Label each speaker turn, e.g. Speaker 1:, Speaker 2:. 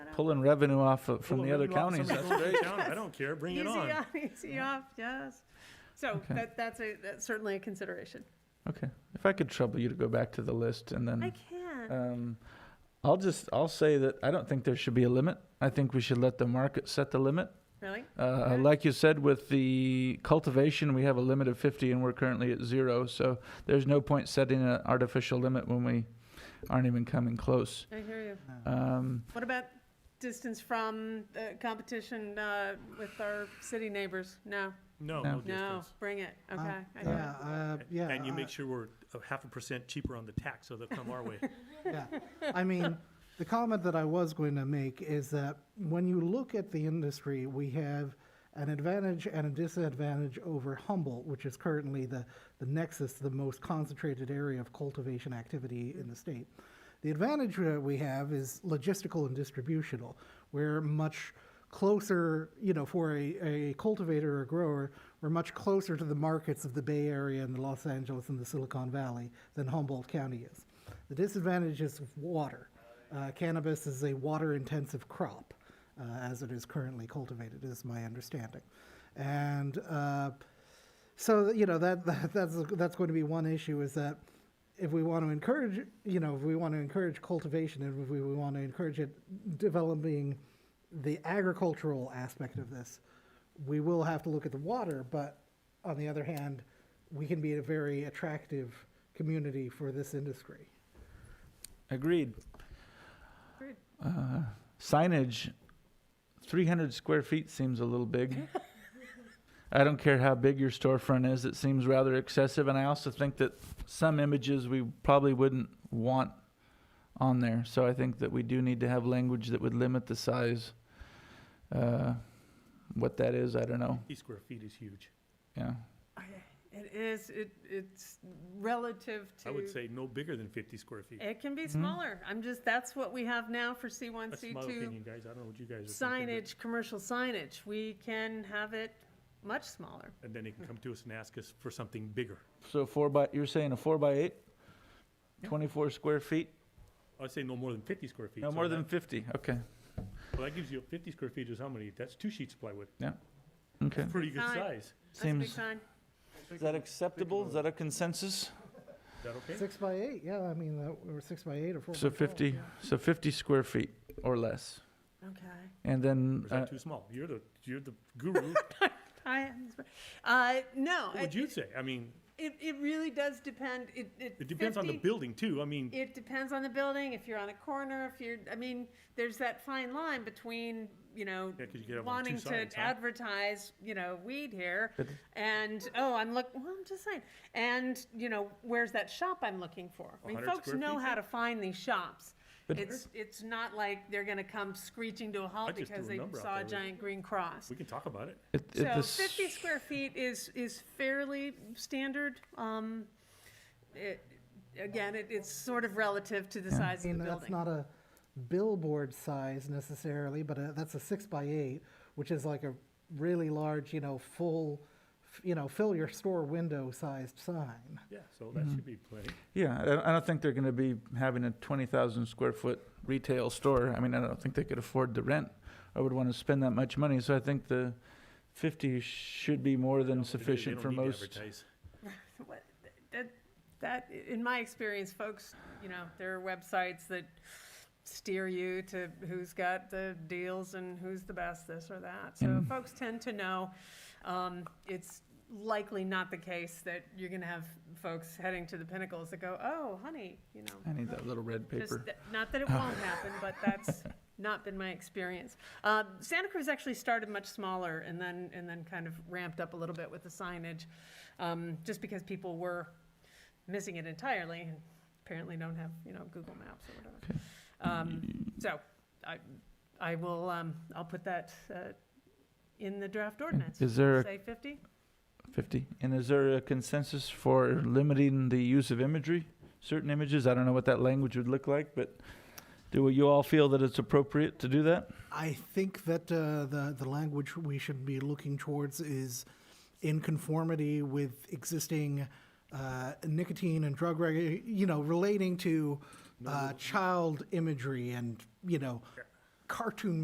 Speaker 1: pulling revenue off of- from
Speaker 2: Well,
Speaker 1: the other
Speaker 2: maybe we'll have
Speaker 1: counties.
Speaker 2: somebody
Speaker 1: That's
Speaker 2: go
Speaker 1: great.
Speaker 2: to town. I don't care, bring it on.
Speaker 3: Easy on, easy off, yes. So
Speaker 1: Okay.
Speaker 3: that, that's a, that's certainly a consideration.
Speaker 1: Okay, if I could trouble you to go back to the list and
Speaker 3: I
Speaker 1: then,
Speaker 3: can.
Speaker 1: um, I'll just, I'll say that I don't think there should be a limit. I think we should let the market set the limit.
Speaker 3: Really?
Speaker 1: Uh,
Speaker 3: Okay.
Speaker 1: like you said, with the cultivation, we have a limit of fifty and we're currently at zero, so there's no point setting an artificial limit when we aren't even coming close.
Speaker 3: I hear you.
Speaker 1: Um,
Speaker 3: What about distance from uh, competition uh, with our city neighbors? No,
Speaker 1: No.
Speaker 2: No, no
Speaker 3: no,
Speaker 2: distance.
Speaker 3: bring it. Okay.
Speaker 4: Uh,
Speaker 3: I hear
Speaker 4: Yeah,
Speaker 3: you.
Speaker 4: uh, yeah.
Speaker 2: And you
Speaker 4: I-
Speaker 2: make sure we're a half a percent cheaper on the tax, so they'll come our way.
Speaker 4: Yeah, I mean, the comment that I was going to make is that when you look at the industry, we have an advantage and a disadvantage over Humboldt, which is currently the, the nexus, the most concentrated area of cultivation activity in the state. The advantage that we have is logistical and distributional. We're much closer, you know, for a, a cultivator or grower, we're much closer to the markets of the Bay Area and the Los Angeles and the Silicon Valley than Humboldt County is. The disadvantage is water. Uh, cannabis is a water intensive crop uh, as it is currently cultivated, is my understanding. And uh, so, you know, that, that that's, that's going to be one issue is that if we want to encourage, you know, if we want to encourage cultivation and if we, we want to encourage it developing the agricultural aspect of this, we will have to look at the water, but on the other hand, we can be a very attractive community for this industry.
Speaker 1: agreed.
Speaker 3: Agreed.
Speaker 1: Uh, signage, three hundred square feet seems a little big. I don't care how big your storefront is, it seems rather excessive, and I also think that some images we probably wouldn't want on there, so I think that we do need to have language that would limit the size. Uh, what that is, I don't know,
Speaker 2: Fifty square feet is huge.
Speaker 1: yeah.
Speaker 3: Okay. It is, it, it's relative to.
Speaker 2: I would say no bigger than fifty square feet.
Speaker 3: It can be
Speaker 1: Mhm.
Speaker 3: smaller. I'm just, that's what we have now for C1,
Speaker 2: That's my
Speaker 3: C2
Speaker 2: opinion, guys. I don't know what you guys are thinking. but-
Speaker 3: signage, commercial signage. We can have it much smaller.
Speaker 2: And then they can come to us and ask us for something bigger.
Speaker 1: So four by, you're saying a four by eight? Twenty-four square feet,
Speaker 2: I'd say no more than fifty square feet.
Speaker 1: no
Speaker 2: so
Speaker 1: more
Speaker 2: that-
Speaker 1: than fifty, okay,
Speaker 2: Well, that gives you, fifty square feet is how many? That's two sheets of plywood.
Speaker 1: okay.
Speaker 2: Pretty good
Speaker 3: Fine.
Speaker 2: size.
Speaker 3: That's a big
Speaker 1: Seems,
Speaker 3: sign.
Speaker 1: is that acceptable, is that a consensus?
Speaker 2: Is that okay?
Speaker 4: Six by eight, yeah, I mean, that- or six by eight or four by
Speaker 1: So
Speaker 4: 12,
Speaker 1: fifty,
Speaker 4: yeah.
Speaker 1: so fifty square feet or less,
Speaker 3: Okay.
Speaker 1: and then
Speaker 2: Or is
Speaker 1: uh,
Speaker 2: that too small? You're the, you're the guru.
Speaker 3: I, uh, no,
Speaker 2: What
Speaker 3: it,
Speaker 2: would you say? I mean,
Speaker 3: it, it really does depend, it, it.
Speaker 2: it depends on the
Speaker 3: 50
Speaker 2: building too. I mean,
Speaker 3: It depends on the building, if you're on a corner, if you're, I mean, there's that fine line between, you know,
Speaker 2: Yeah, 'cause you could have on two
Speaker 3: wanting to
Speaker 2: sides, huh?
Speaker 3: advertise, you know, weed here,
Speaker 1: But-
Speaker 3: and, oh, I'm look, well, I'm just saying, and, you know, where's that shop I'm looking for? I mean,
Speaker 2: 100
Speaker 3: folks
Speaker 2: square
Speaker 3: know
Speaker 2: feet?
Speaker 3: how to find these shops.
Speaker 1: But-
Speaker 3: It's, it's not like they're gonna come screeching to a
Speaker 2: I
Speaker 3: halt
Speaker 2: just threw
Speaker 3: because
Speaker 2: a
Speaker 3: they
Speaker 2: number out
Speaker 3: saw
Speaker 2: there.
Speaker 3: a
Speaker 2: We-
Speaker 3: giant green cross.
Speaker 2: we can talk about it.
Speaker 1: it, it,
Speaker 3: So
Speaker 1: this,
Speaker 3: fifty square feet is, is fairly standard. Um, it, again, it, it's sort of relative to the size
Speaker 4: I
Speaker 3: of
Speaker 4: mean,
Speaker 3: the
Speaker 4: that's
Speaker 3: building.
Speaker 4: not a billboard size necessarily, but uh that's a six by eight, which is like a really large, you know, full, f- you know, fill your store window sized sign.
Speaker 2: Yeah, so
Speaker 1: Mm-hmm.
Speaker 2: that should be plenty.
Speaker 1: yeah, I don't, I don't think they're going to be having a twenty thousand square foot retail store. I mean, I don't think they could afford the rent or would want to spend that much money. So I think the fifty should be more than
Speaker 2: They do- they
Speaker 1: sufficient
Speaker 2: don't
Speaker 1: for
Speaker 2: need to
Speaker 1: most.
Speaker 2: advertise.
Speaker 3: What- That, that, in my experience, folks, you know, there are websites that steer you to who's got the deals and who's the best this or that. So
Speaker 1: Mm.
Speaker 3: folks tend to know. Um, it's likely not the case that you're gonna have folks heading to the pinnacles that go, oh, honey, you know.
Speaker 1: I need that little red
Speaker 3: Just
Speaker 1: paper. Oh.
Speaker 3: th- Not that it won't happen, but that's not been my experience. Um, Santa Cruz actually started much smaller and then, and then kind of ramped up a little bit with the signage, um, just because people were missing it entirely and apparently don't have, you know, Google Maps or whatever.
Speaker 1: Okay. Mm.
Speaker 3: Um, So I, I will, um, I'll put that uh, in the draft ordinance.
Speaker 1: Is there a
Speaker 3: Say 50?
Speaker 1: fifty? And is there a consensus for limiting the use of imagery? Certain images. I don't know what that language would look like, but do you all feel that it's appropriate to do that?
Speaker 4: I think that uh, the the language we should be looking towards is in conformity with existing uh, nicotine and drug reg, you know, relating to uh, child imagery and you know cartoon